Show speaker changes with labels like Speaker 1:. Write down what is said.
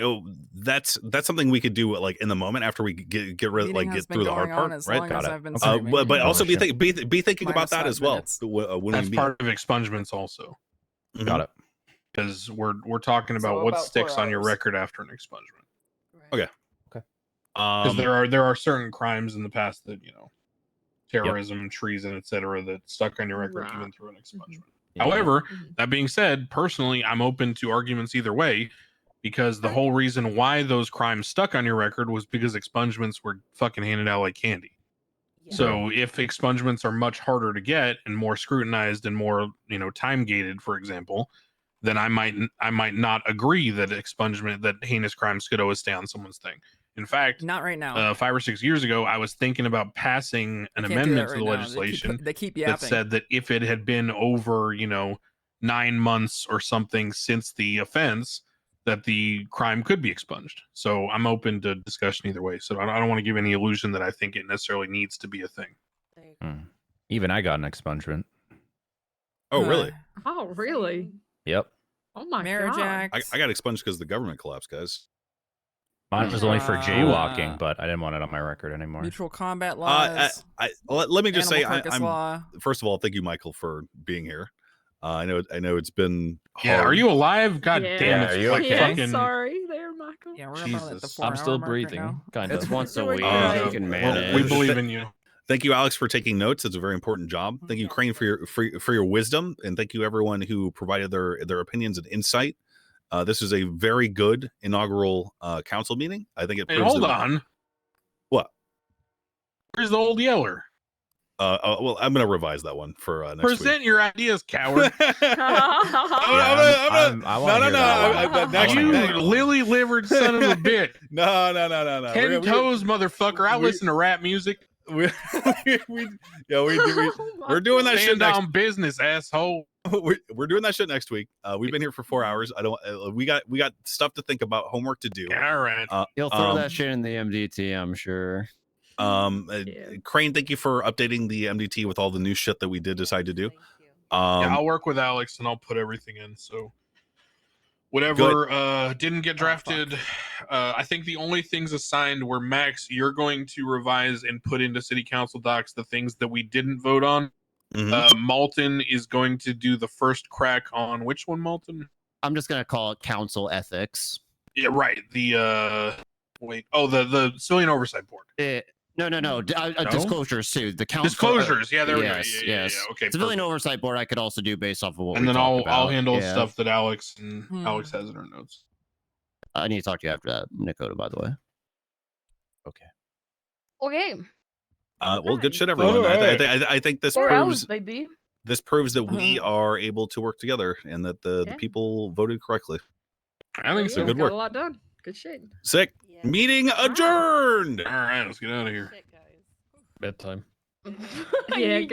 Speaker 1: oh, that's that's something we could do uh, like in the moment after we get get rid
Speaker 2: Meeting
Speaker 1: like
Speaker 2: has
Speaker 1: get
Speaker 2: been
Speaker 1: through the
Speaker 2: going
Speaker 1: hard
Speaker 2: on
Speaker 1: part,
Speaker 2: as
Speaker 1: right?
Speaker 2: long
Speaker 1: Got
Speaker 2: as
Speaker 1: it.
Speaker 2: I've been
Speaker 3: Uh,
Speaker 1: Uh,
Speaker 2: streaming.
Speaker 1: but, but
Speaker 3: Oh,
Speaker 1: also be,
Speaker 3: shit.
Speaker 1: think, be be thinking about
Speaker 2: Minus
Speaker 1: that
Speaker 2: five
Speaker 1: as well
Speaker 2: minutes.
Speaker 1: w- uh, when
Speaker 4: That's
Speaker 1: we meet.
Speaker 4: part of expungements also,
Speaker 1: Mhm.
Speaker 3: Got it.
Speaker 4: because we're we're talking
Speaker 2: So
Speaker 4: about what
Speaker 2: about four
Speaker 4: sticks on your
Speaker 2: hours.
Speaker 4: record after an expungement.
Speaker 1: Okay.
Speaker 4: Because
Speaker 1: Um,
Speaker 4: there are there are certain crimes in the past that you know, terrorism, treason, etc., that stuck on your record
Speaker 5: Right.
Speaker 4: even through an expungement.
Speaker 3: Yeah.
Speaker 4: However,
Speaker 2: Mm.
Speaker 5: Mhm.
Speaker 4: that being said, personally, I'm open to arguments either way because the whole reason why those crimes stuck on your record was because expungements were fucking handed out like candy.
Speaker 5: Yeah.
Speaker 4: So if expungements are much harder to get and more scrutinized and more, you know, time gated, for example, then I might I might not agree that expungement that heinous crimes could always stay on someone's thing. In fact,
Speaker 2: Not right now.
Speaker 4: uh, five or six years ago, I was thinking about passing an
Speaker 2: Can't do
Speaker 4: amendment
Speaker 2: that
Speaker 4: to the
Speaker 2: right now.
Speaker 4: legislation
Speaker 2: They keep, they keep
Speaker 4: that
Speaker 2: yapping.
Speaker 4: said that if it had been over, you know, nine months or something since the offense, that the crime could be expunged. So I'm open to discussion either way. So I don't, I don't want to give any illusion that I think it necessarily needs to be a thing.
Speaker 5: Like,
Speaker 3: Hmm. even I got an expungement.
Speaker 1: oh,
Speaker 2: Uh,
Speaker 1: really?
Speaker 5: Oh, really?
Speaker 3: Yep.
Speaker 5: Oh my
Speaker 2: Marriage
Speaker 5: god.
Speaker 1: I,
Speaker 2: Act.
Speaker 1: I got expunged because the government collapsed, guys.
Speaker 3: Mine was only for
Speaker 2: Uh,
Speaker 3: jaywalking, but I didn't want it on my record anymore.
Speaker 2: mutual combat
Speaker 1: Uh, I,
Speaker 2: laws.
Speaker 1: I, let, let me just say,
Speaker 2: animal
Speaker 1: I,
Speaker 2: carcass
Speaker 1: I'm
Speaker 2: law.
Speaker 1: first of all, thank you, Michael, for being here. Uh, I know, I know, it's been. Hard.
Speaker 4: Yeah. Are you alive? God
Speaker 5: Yeah.
Speaker 4: damn
Speaker 6: Yeah,
Speaker 4: it.
Speaker 6: are you
Speaker 4: like
Speaker 6: okay?
Speaker 5: Yeah,
Speaker 4: fucking-
Speaker 5: sorry there, Michael.
Speaker 2: Yeah, we're about at the
Speaker 4: Jesus.
Speaker 2: four
Speaker 6: I'm still
Speaker 2: hour mark right
Speaker 6: breathing,
Speaker 2: now.
Speaker 6: kind
Speaker 2: It's
Speaker 6: of.
Speaker 2: once a
Speaker 5: Doing
Speaker 6: week.
Speaker 5: great.
Speaker 6: You can
Speaker 4: Well,
Speaker 6: manage.
Speaker 4: we believe in you.
Speaker 1: Thank you, Alex, for taking notes. It's a very important job. Thank
Speaker 4: Mm-hmm.
Speaker 1: you, Crane, for your for, for your wisdom, and thank you everyone who provided their their opinions and insight. Uh, this is a very good inaugural uh, council meeting. I think it.
Speaker 4: Hey,
Speaker 1: proves
Speaker 4: hold
Speaker 1: that-
Speaker 4: on.
Speaker 1: What?
Speaker 4: Where's the old yeller?
Speaker 1: Uh, uh, well, I'm going to revise that one for uh, next
Speaker 4: Present your ideas, coward.
Speaker 1: week.
Speaker 5: Oh,
Speaker 1: I'm
Speaker 3: Yeah,
Speaker 1: gonna- I'm gonna-
Speaker 3: I'm- I
Speaker 1: no,
Speaker 3: wanna
Speaker 1: no,
Speaker 3: hear
Speaker 1: no,
Speaker 3: that
Speaker 1: I-
Speaker 3: one.
Speaker 5: I- I- next-
Speaker 4: you
Speaker 1: next-
Speaker 4: lily livered son of a bitch.
Speaker 1: no, no, no, no, no. We're-
Speaker 4: Ten
Speaker 1: we-
Speaker 4: toes, motherfucker. I
Speaker 1: we-
Speaker 4: listen to rap music.
Speaker 1: We, we, we, yeah, we, we,
Speaker 5: Oh my
Speaker 1: we're doing that
Speaker 5: God.
Speaker 1: shit
Speaker 4: Stand
Speaker 1: next.
Speaker 4: on business, asshole.
Speaker 1: we're, we're doing that shit next week. Uh, we've been here for four hours. I don't. Uh, we got we got stuff to think about, homework to do.
Speaker 4: All right.
Speaker 6: He'll throw
Speaker 1: Um,
Speaker 6: that shit in the MDT, I'm sure.
Speaker 1: Um, uh,
Speaker 5: Yeah.
Speaker 1: Crane, thank you for updating the MDT with all the new shit that we did decide to do.
Speaker 5: Thank you.
Speaker 1: Um,
Speaker 4: yeah, I'll work with Alex and I'll put everything in. So whatever uh didn't get drafted. uh I think the only things assigned were Max, you're going to revise and put into city council docs the things that we didn't vote on.
Speaker 1: mhm.
Speaker 4: Uh Malton is going to do the first crack on which one, Malton?
Speaker 6: I'm just gonna call it council ethics.
Speaker 4: Yeah, right. The uh wait. Oh, the the civilian oversight board.
Speaker 6: Eh, no, no, no. D- uh, uh,
Speaker 4: No?
Speaker 6: Disclosures too. The council
Speaker 4: Disclosures. Yeah, there
Speaker 6: yes,
Speaker 4: we go. Yeah, yeah,
Speaker 6: yes.
Speaker 4: yeah, Okay.
Speaker 6: Civilian
Speaker 4: perfect.
Speaker 6: oversight board. I could also do based off of what.
Speaker 4: and
Speaker 6: we
Speaker 4: then
Speaker 6: talked
Speaker 4: I'll I'll
Speaker 6: about.
Speaker 4: handle
Speaker 6: Yeah.
Speaker 4: stuff that Alex and
Speaker 2: Hmm.
Speaker 4: Alex has in her notes.
Speaker 6: I need to talk to you after that, Nakota. By the way.
Speaker 5: Okay.
Speaker 1: Uh, well, good
Speaker 5: Nice.
Speaker 1: shit, everyone. I,
Speaker 4: Alright.
Speaker 1: th- I, th- I think this
Speaker 5: Four
Speaker 1: proves
Speaker 5: hours, baby.
Speaker 1: this proves that we
Speaker 4: Mm-hmm.
Speaker 1: are able to work together and that the,
Speaker 5: Yeah.
Speaker 1: the people voted correctly.
Speaker 4: I think so.
Speaker 1: Good
Speaker 5: Got
Speaker 1: work.
Speaker 5: a lot done. Good shit.
Speaker 1: Sick.
Speaker 5: Yeah.
Speaker 1: Meeting adjourned.
Speaker 4: All right, let's get out of here.
Speaker 5: Shit, guys.
Speaker 6: Bedtime.
Speaker 5: yeah,